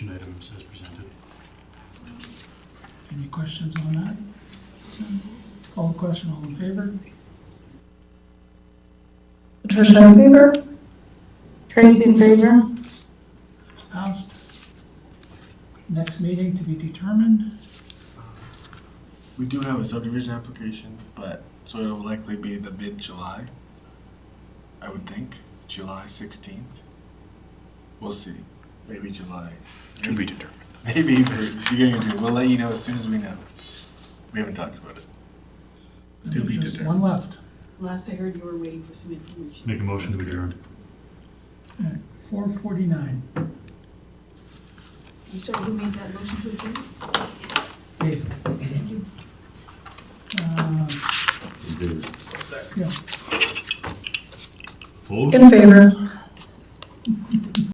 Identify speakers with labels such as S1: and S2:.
S1: items as presented.
S2: Any questions on that? Call the question, all in favor?
S3: Patricia in favor? Tracy in favor?
S2: It's passed. Next meeting to be determined.
S4: We do have a subdivision application, but, so it'll likely be the mid-July, I would think, July sixteenth. We'll see, maybe July,
S1: To be determined.
S4: maybe for beginning of June, we'll let you know as soon as we know. We haven't talked about it.
S2: And
S4: To be
S2: there's just One left
S5: Last I heard, you were waiting for some information.
S1: Make a motion to adjourn.
S2: at four forty-nine.
S5: I'm sorry, who made that motion to adjourn?
S2: Dave?
S5: Thank you.
S2: Uh, yeah.
S3: In favor.